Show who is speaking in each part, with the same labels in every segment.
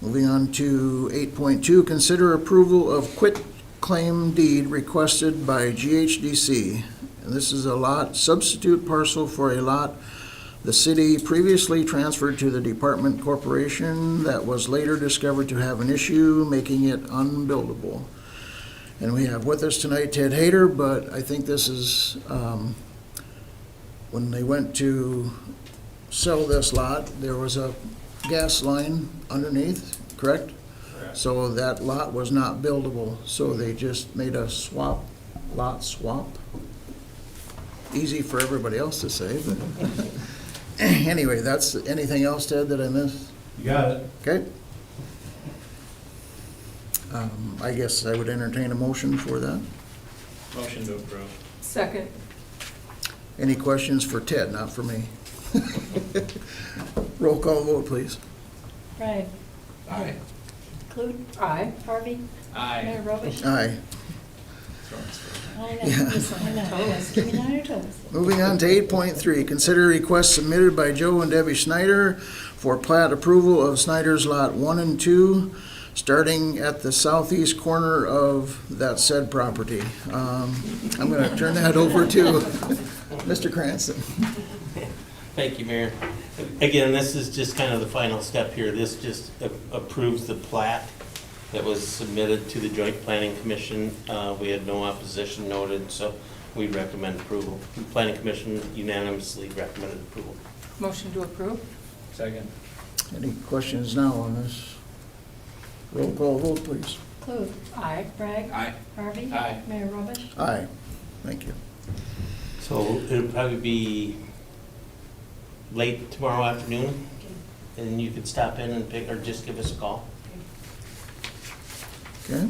Speaker 1: Moving on to 8.2, consider approval of quit claim deed requested by GHDC. And This is a lot substitute parcel for a lot the city previously transferred to the department corporation that was later discovered to have an issue, making it unbuildable. And we have with us tonight Ted Hayter, but I think this is, um, when they went to sell this lot, there was a gas line underneath, correct?
Speaker 2: Correct.
Speaker 1: So that lot was not buildable, so they just made a swap, lot swap. Easy for everybody else to say, but anyway, that's, anything else, Ted, that I missed?
Speaker 2: You got it.
Speaker 1: Okay? Um, I guess I would entertain a motion for that.
Speaker 2: Motion to approve.
Speaker 3: Second.
Speaker 1: Any questions for Ted, not for me? Roll call vote, please.
Speaker 4: Right.
Speaker 2: Aye.
Speaker 4: Clute,
Speaker 3: Aye.
Speaker 4: Harvey,
Speaker 2: Aye.
Speaker 4: Mayor Robish.
Speaker 1: Aye.
Speaker 4: I know, listen, I know, yes, keep me on your toes.
Speaker 1: Moving on to eight point three, consider requests submitted by Joe and Debbie Snyder for plat approval of Snyder's Lot one and two, starting at the southeast corner of that said property. Um, I'm gonna turn that over to Mr. Cranston.
Speaker 5: Thank you, Mayor. Again, this is just kind of the final step here. This just a- approves the plat that was submitted to the Joint Planning Commission. Uh, We had no opposition noted, so we recommend approval. The Planning Commission unanimously recommended approval.
Speaker 3: Motion to approve?
Speaker 2: Second.
Speaker 1: Any questions now on this? Roll call vote, please.
Speaker 4: Clute,
Speaker 3: Aye.
Speaker 4: Bragg,
Speaker 2: Aye.
Speaker 4: Harvey.
Speaker 2: Aye.
Speaker 4: Mayor Robish.
Speaker 1: Aye, thank you.
Speaker 5: So it'll probably be late tomorrow afternoon, and you could stop in and pick, or just give us a call.
Speaker 1: Okay.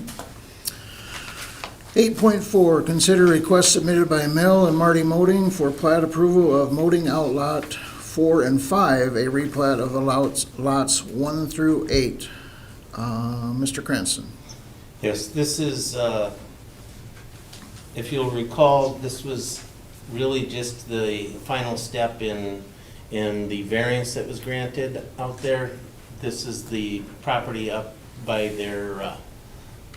Speaker 1: Eight point four, consider request submitted by Mel and Marty Moding for plat approval of Moding Outlot four and five, a replat of the lots, lots one through eight. Uh, Mr. Cranston,
Speaker 5: Yes, this is, uh, if you'll recall, this was really just the final step in, in the variance that was granted out there. This is the property up by their, uh,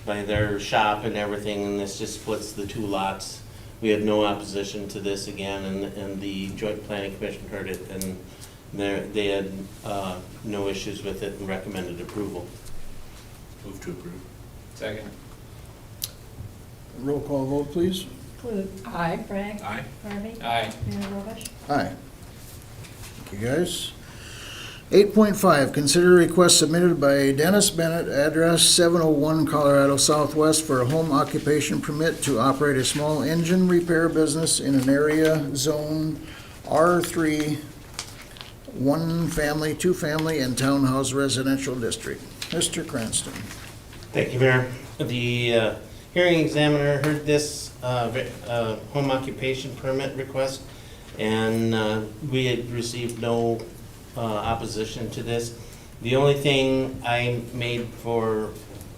Speaker 5: by their shop and everything, and this just splits the two lots. We had no opposition to this again, and, and the Joint Planning Commission heard it, and they, they had uh, no issues with it and recommended approval.
Speaker 2: Move to approve. Second.
Speaker 1: roll call vote, please.
Speaker 4: Clute,
Speaker 3: Aye.
Speaker 4: Bragg,
Speaker 2: Aye.
Speaker 4: Harvey.
Speaker 2: Aye.
Speaker 4: Mayor Robish.
Speaker 1: Aye. Thank you, guys. Eight point five, consider request submitted by Dennis Bennett, address seven oh one Colorado Southwest for a home occupation permit to operate a small engine repair business in an area zone R three, one family, two family, and townhouse residential district. Mr. Cranston.
Speaker 5: Thank you, Mayor. The uh, hearing examiner heard this uh, ve- uh, home occupation permit request, and uh, we had received no uh, opposition to this. The only thing I made for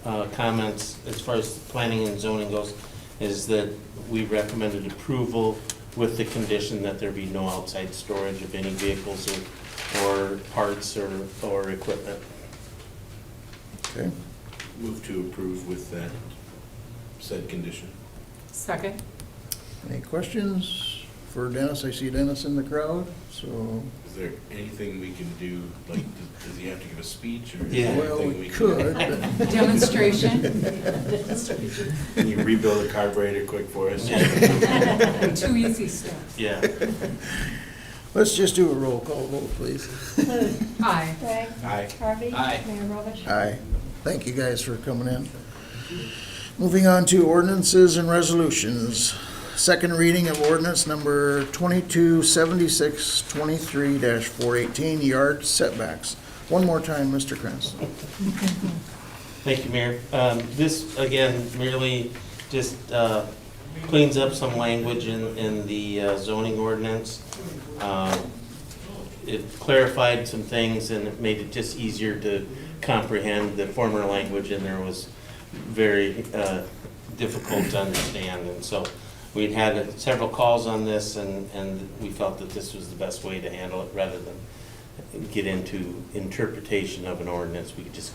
Speaker 5: uh, comments as far as planning and zoning goes is that we recommended approval with the condition that there be no outside storage of any vehicles or- or parts or or equipment.
Speaker 1: Okay.
Speaker 6: Move to approve with that said condition.
Speaker 3: Second.
Speaker 1: Any questions for Dennis? I see Dennis in the crowd, so.
Speaker 6: Is there anything we can do, like, does- does he have to give a speech or? is
Speaker 5: Yeah.
Speaker 6: there
Speaker 1: Well,
Speaker 6: anything
Speaker 1: we
Speaker 6: can-
Speaker 1: could, but.
Speaker 3: Demonstration,
Speaker 6: Can you rebuild the carburetor quick for us?
Speaker 3: two easy steps.
Speaker 5: Yeah.
Speaker 1: Let's just do a roll call vote, please.
Speaker 4: Clute,
Speaker 3: Aye.
Speaker 4: Bragg,
Speaker 6: Aye.
Speaker 4: Harvey.
Speaker 2: Aye.
Speaker 4: Mayor Robish.
Speaker 1: Aye. Thank you guys for coming in. Moving on to ordinances and resolutions. Second reading of ordinance number 2276-23-418, yard setbacks. One more time, Mr. Cranston.
Speaker 5: Thank you, Mayor. Um, This, again, merely just uh, cleans up some language in, in the uh, zoning ordinance. Um, It clarified some things and it made it just easier to comprehend. The former language in there was very uh, difficult to understand. And so we'd had several calls on this and, and we felt that this was the best way to handle it rather than get into interpretation of an ordinance. We could just